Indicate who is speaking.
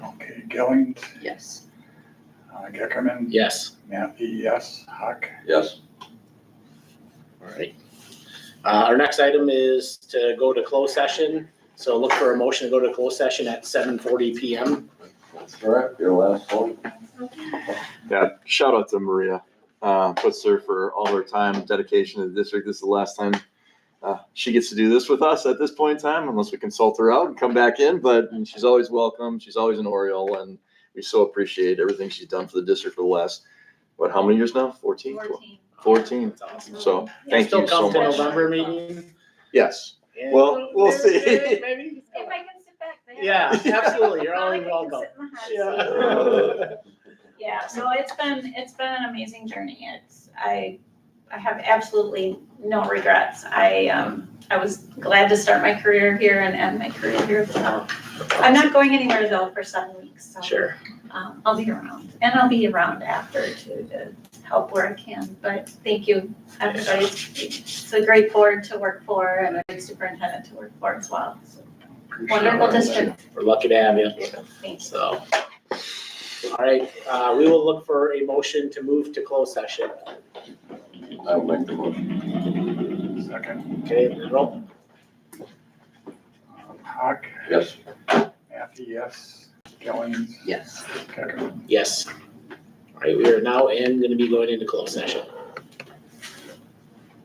Speaker 1: Gillings,
Speaker 2: Yes.
Speaker 1: uh, Geckerman,
Speaker 3: Yes.
Speaker 1: Mathew, yes, Huck.
Speaker 4: Yes,
Speaker 3: All right. Uh, our next item is to go to closed session. So look for a motion to go to closed session at seven forty PM.
Speaker 4: that's correct, your last one.
Speaker 5: Yeah, shout out to Maria, uh, puts her for all her time, dedication to the district. This is the last time uh, she gets to do this with us at this point in time, unless we consult her out and come back in. But she's always welcome. She's always an Oriole, and we so appreciate everything she's done for the district for the last what? How many years now? Fourteen. Fourteen.
Speaker 3: That's awesome.
Speaker 5: So thank
Speaker 3: Still
Speaker 5: you so
Speaker 3: come to
Speaker 5: much.
Speaker 3: November meeting?
Speaker 5: Yes.
Speaker 3: Yeah.
Speaker 5: Well, we'll see.
Speaker 3: Maybe?
Speaker 6: If I can sit back there.
Speaker 3: Yeah, absolutely. You're
Speaker 6: Not
Speaker 3: always
Speaker 6: like I can
Speaker 3: welcome.
Speaker 6: sit in the hot seat.
Speaker 3: Yeah.
Speaker 6: Yeah, so it's been, it's been an amazing journey. It's, I, I have absolutely no regrets. I, um, I was glad to start my career here and end my career here, so. I'm not going anywhere though for seven weeks, so,
Speaker 3: Sure.
Speaker 6: um, I'll be around. And I'll be around after too to help where I can, but thank you, everybody. It's a great board to work for and a great superintendent to work for as well. So, Wonderful district,
Speaker 3: We're lucky to have you.
Speaker 6: thanks.
Speaker 3: So. All right, uh, we will look for a motion to move to closed session.
Speaker 4: I'll make the motion.
Speaker 1: Second,
Speaker 3: Okay, roll.
Speaker 1: um, Huck,
Speaker 4: Yes.
Speaker 1: Mathew, yes, Gillings,
Speaker 2: Yes.
Speaker 1: Geckerman.
Speaker 3: Yes. All right, we are now in, gonna be going into closed session.